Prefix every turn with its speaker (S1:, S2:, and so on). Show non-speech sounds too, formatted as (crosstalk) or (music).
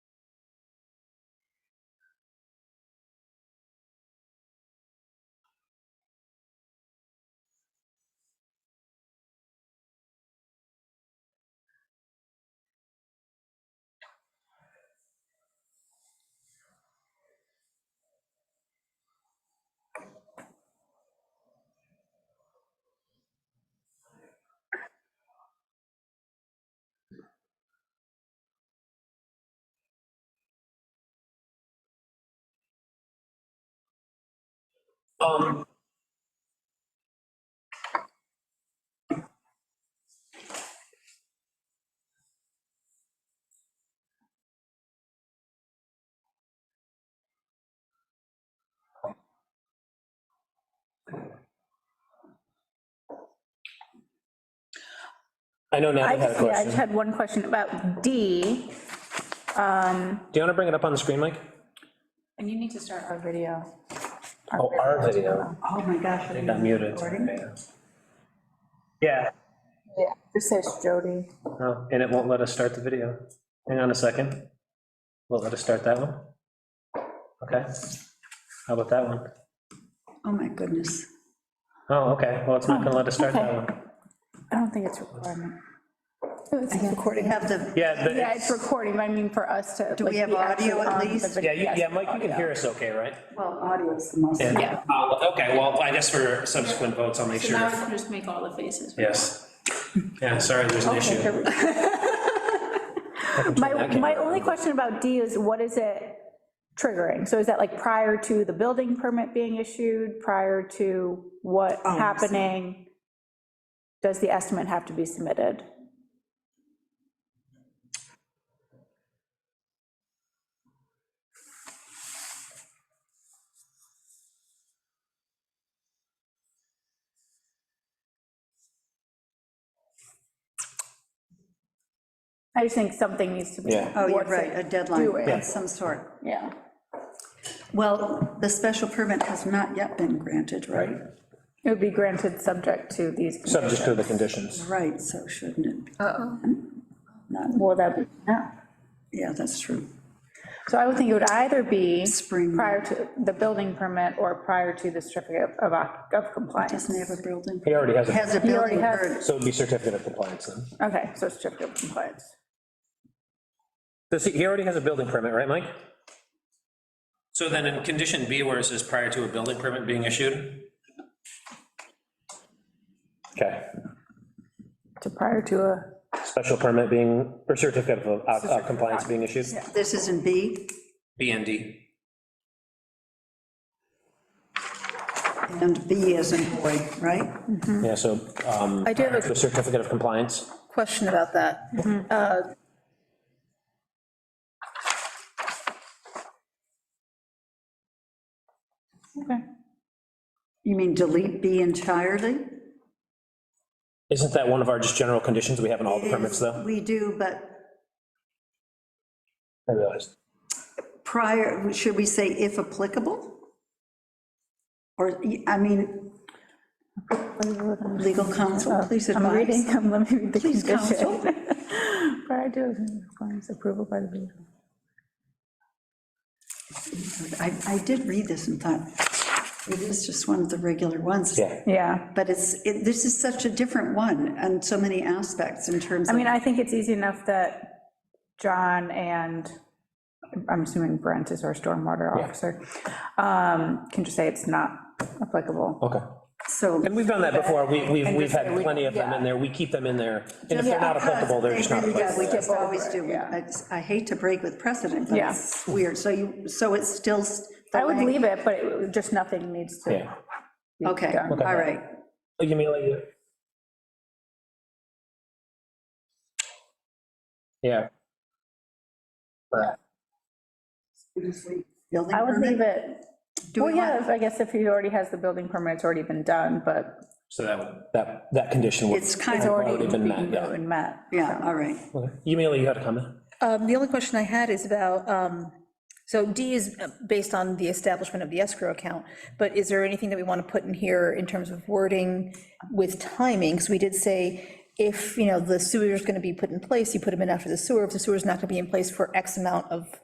S1: Um, I know Natalie
S2: I
S1: had a
S2: just, yeah, I
S1: question.
S2: just had one question about D. Um,
S1: Do you want to bring it up on the screen, Mike?
S3: And you need to start our video.
S1: Oh, our video.
S4: Oh, my gosh.
S1: I got muted. Yeah,
S3: Yeah. This says Jody.
S1: oh, and it won't let us start the video. Hang on a second. Won't let us start that one? Okay. How about that one?
S4: Oh, my goodness.
S1: Oh, okay, well, it's not gonna let us start that one.
S3: I don't think it's a requirement. Oh,
S4: Recording. Have the,
S1: Yeah, the-
S2: Yeah, it's recording, but I mean, for us to. Do
S4: we have audio at least?
S1: yeah, you- yeah, Mike, you can hear us okay, right?
S4: well, audio is the most.
S1: Yeah. Okay, well, I guess for subsequent votes, I'll make
S3: So now I
S1: sure.
S3: can just make all the faces.
S1: Yes. Yeah, sorry, there's an issue.
S2: My, my only question about D is what is it triggering? So is that like prior to the building permit being issued, prior to what
S4: Oh, I see.
S2: happening? Does the estimate have to be submitted? I just think something needs to be.
S1: Yeah.
S4: Oh, you're
S2: what's
S4: right, a
S2: it doing?
S4: deadline of some sort.
S2: Yeah.
S4: Well, the special permit has not yet been granted, right?
S2: It would be granted subject to these.
S1: Subject to the conditions.
S4: Right, so shouldn't it? be? Hmm? Not,
S2: Well, that, be yeah.
S4: yeah, that's true.
S2: so I would think it would either be
S4: Spring.
S2: prior to the building permit or prior to the certificate of, oc- of compliance.
S4: Doesn't he have a building?
S1: He already has it,
S4: Has a
S2: He already
S4: building
S2: has-
S4: permit.
S1: so it'd be certificate of compliance then.
S2: Okay, so certificate of compliance.
S1: Does he, he already has a building permit, right, Mike? So then in condition B, where it says prior to a building permit being issued? Okay,
S2: To prior to a,
S1: special permit being, or certificate of uh, uh, compliance being issued,
S4: This is in B,
S1: B and D.
S4: and B is in boy, right?
S1: Yeah, so, um,
S5: I do have a-
S1: prior to certificate of compliance,
S5: question about that. Uh,
S2: okay.
S4: You mean delete B entirely?
S1: isn't that one of our just general conditions we have in all the permits, though?
S4: We do, but
S1: I realized.
S4: prior, should we say if applicable? Or, I mean, legal counsel, please
S2: Uh, I'm reading,
S4: advise.
S2: I'm let me read the
S4: Please, counsel.
S2: condition. (laughs) Prior to compliance approval by the building.
S4: I, I did read this and thought, it is just one of the regular ones.
S1: Yeah,
S2: Yeah,
S4: But it's, it- this is such a different one on so many aspects in terms
S2: I
S4: of,
S2: mean, I think it's easy enough that John and, I'm assuming Brent is our stormwater officer, um, can just say it's not applicable.
S1: okay.
S4: so.
S1: And we've done that before, we, we've,
S2: And
S1: we've
S2: just
S1: had
S2: say we-
S1: plenty of them in
S2: yeah.
S1: there, we keep them in there, and if they're not applicable, they're just not
S4: Yeah, we
S1: applicable.
S4: just always do.
S2: Yeah.
S4: I I hate to break with precedent, but
S2: Yeah.
S4: it's weird. So you, so it's still. s- the
S2: I would
S4: lang-
S2: leave it, but it- just nothing needs to.
S1: Yeah.
S2: be
S4: Okay,
S2: done.
S4: all right.
S1: You mean like? you- Yeah. Right.
S4: Building
S2: I would
S4: permit?
S2: leave it,
S4: Do
S2: well,
S4: we
S2: yeah,
S4: want,
S2: if- I guess if he already has the building permit, it's already been done, but
S1: So that, would- that, that condition would.
S4: it's kind
S2: it's
S4: of,
S2: already
S1: already
S2: been
S1: been met, yeah.
S2: met.
S4: yeah, all right.
S1: Okay. Yumila, you had a comment?
S5: um, The only question I had is about, um, so D is uh, based on the establishment of the escrow account, but is there anything that we want to put in here in terms of wording with timing? Because we did say, if, you know, the sewer is going to be put in place, you put them in after the sewer, if the sewer's not going to be in place for X amount of